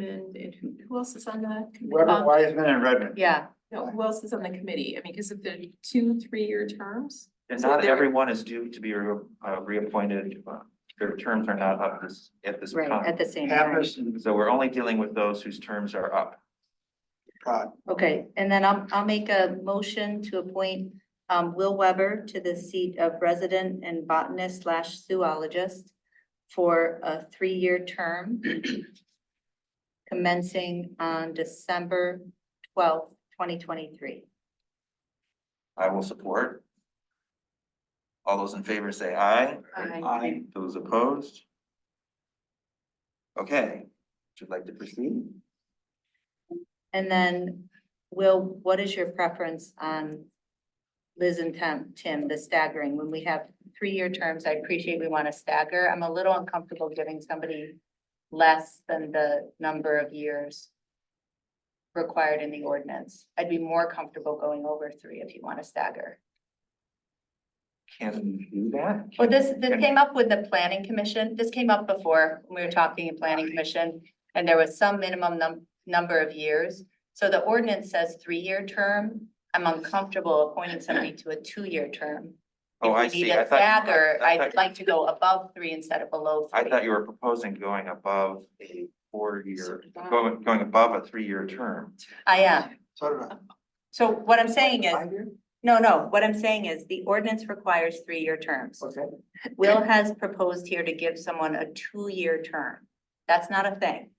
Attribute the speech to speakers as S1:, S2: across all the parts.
S1: Redmond and who, who else is on the? committee?
S2: Weber,
S1: Um,
S2: Wiseman and Redmond.
S3: Yeah,
S1: No, who else is on the committee? I mean, because of the two, three-year terms?
S4: And
S1: So
S4: not
S1: they're-
S4: everyone is due to be re- uh, reappointed, uh, their terms are not up this, at this
S3: right, at
S4: time.
S3: the same time.
S2: Pappas and
S4: So we're only dealing with those whose terms are up.
S2: Pratt.
S3: Okay, and then I'll, I'll make a motion to appoint um, Will Weber to the seat of resident and botanist slash zoologist for a three-year term commencing on December twelfth, twenty twenty-three.
S4: I will support. All those in favor say aye.
S1: Aye.
S2: Aye.
S4: Those opposed? Okay, would you like to proceed?
S3: And then, Will, what is your preference on Liz and Tim, Tim, the staggering? When we have three-year terms, I appreciate we want to stagger. I'm a little uncomfortable giving somebody less than the number of years required in the ordinance. I'd be more comfortable going over three if you want to stagger.
S4: Can we do that?
S3: Well, this, this came up with the planning commission, this came up before, when we were talking in planning commission, and there was some minimum num- number of years. So the ordinance says three-year term, I'm uncomfortable appointing somebody to a two-year term.
S4: Oh, I
S3: If we need
S4: see.
S3: a
S4: I thought-
S3: stagger,
S4: I
S3: I'd
S4: thought-
S3: like to go above three instead of below
S4: I
S3: three.
S4: thought you were proposing going above a
S1: So uh,
S4: four-year,
S1: did I.
S4: going, going above a three-year term.
S3: I am,
S2: So did I.
S3: so what I'm saying is,
S2: Five years?
S3: no, no, what I'm saying is the ordinance requires three-year terms.
S2: Okay.
S3: Will has proposed here to give someone a two-year term. That's not a thing.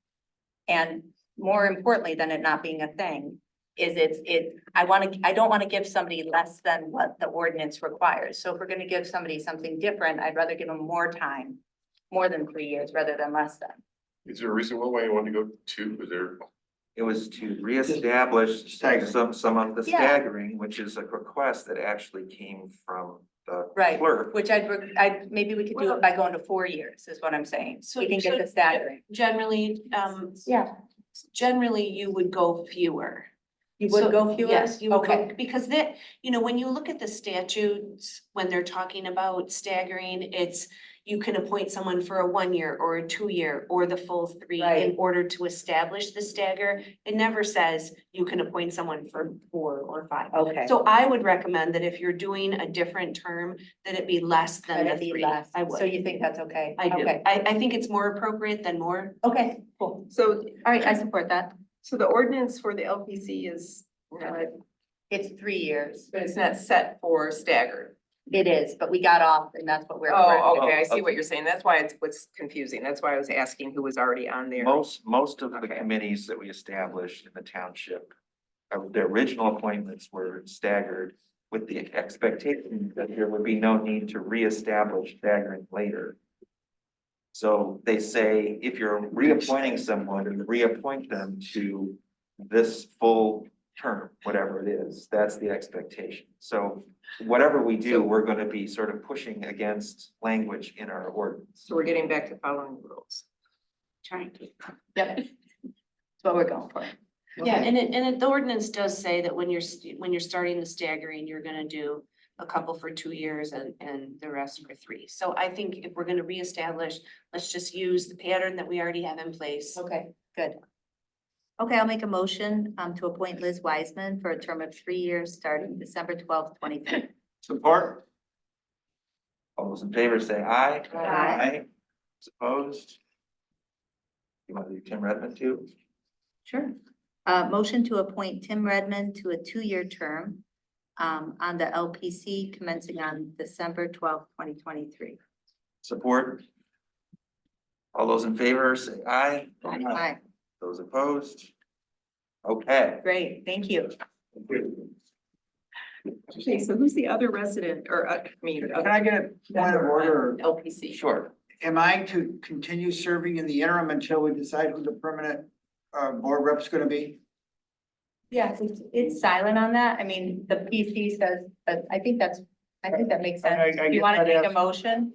S3: And more importantly than it not being a thing, is it's, it, I want to, I don't want to give somebody less than what the ordinance requires. So if we're going to give somebody something different, I'd rather give them more time, more than three years rather than less than.
S5: Is there a reason why you want to go two? Is there?
S4: It was to reestablish
S2: Staggering.
S4: some, some of the
S3: Yeah.
S4: staggering, which is a request that actually came from the
S3: Right,
S4: clerk.
S3: Which I'd, reg- I, maybe we could do it by going to four years is what I'm saying.
S1: So-
S3: We can get
S1: so-
S3: the staggering.
S1: Generally, um,
S3: Yeah.
S1: generally you would go fewer.
S3: You would
S1: So,
S3: go fewer?
S1: Yes, you would
S3: Okay.
S1: go, because that, you know, when you look at the statutes, when they're talking about staggering, it's. You can appoint someone for a one year or a two year or the full three in
S3: Right.
S1: order to establish the stagger. It never says you can appoint someone for four or five.
S3: Okay.
S1: So I would recommend that if you're doing a different term, that it be less
S3: Let
S1: than the
S3: it be
S1: three.
S3: less.
S1: I would.
S3: So you think that's okay?
S1: I do.
S3: Okay.
S1: I, I think it's more appropriate than more.
S3: Okay, cool.
S6: So,
S3: All right, I support that.
S6: so the ordinance for the LPC is, uh,
S3: It's three years.
S6: but it's not set for staggered.
S3: It is, but we got off and that's what we're.
S6: Oh,
S3: correcting.
S6: okay, I see what you're saying. That's why it's, what's confusing. That's why I was asking who was already on there.
S4: Most, most of the
S6: Okay.
S4: committees that we established in the township, uh, their original appointments were staggered with the expectation that there would be no need to reestablish staggering later. So they say if you're reappointing someone and reappoint them to this full term, whatever it is, that's the expectation. So whatever we do, we're gonna be sort of pushing against language in our ordinance.
S6: So we're getting back to following the rules.
S1: Trying to.
S3: Yep. That's what we're going for.
S1: Yeah, and it, and it, the ordinance does say that when you're, st- when you're starting the staggering, you're gonna do a couple for two years and, and the rest for three. So I think if we're gonna reestablish, let's just use the pattern that we already have in place.
S3: Okay, good. Okay, I'll make a motion um to appoint Liz Wiseman for a term of three years starting December twelfth, twenty three.
S4: Support. All those in favor say aye.
S6: Aye.
S4: Those Opposed? You want to do Tim Redmond too?
S3: Sure. Uh, motion to appoint Tim Redmond to a two-year term um on the LPC commencing on December twelfth, twenty twenty-three.
S4: Support? All those in favor say aye.
S3: Aye,
S4: Those opposed? Okay.
S3: great, thank you.
S6: Okay, so who's the other resident or, uh, I mean,
S2: Can I get a point of order?
S6: LPC?
S4: Sure.
S2: Am I to continue serving in the interim until we decide who the permanent uh board rep's gonna be?
S3: Yes, it's, it's silent on that. I mean, the PC says, but I think that's, I think that makes
S2: I- I- I
S3: sense. Do You
S2: guess
S3: want to
S2: I'd
S3: take a
S2: ask-
S3: motion?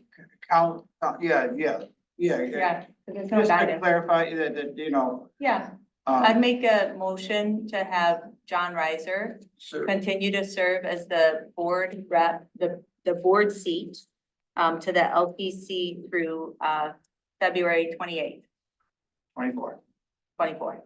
S2: Count, uh, yeah, yeah, yeah.
S3: Yeah. 'cause There's no
S2: Just to
S3: guidance.
S2: clarify that, that, you know,
S3: Yeah, I'd
S2: um,
S3: make a motion to have John Reiser
S2: so-
S3: continue to serve as the board rep, the, the board seat um, to the LPC through, uh, February twenty-eighth.
S2: twenty-four.
S3: Twenty-four.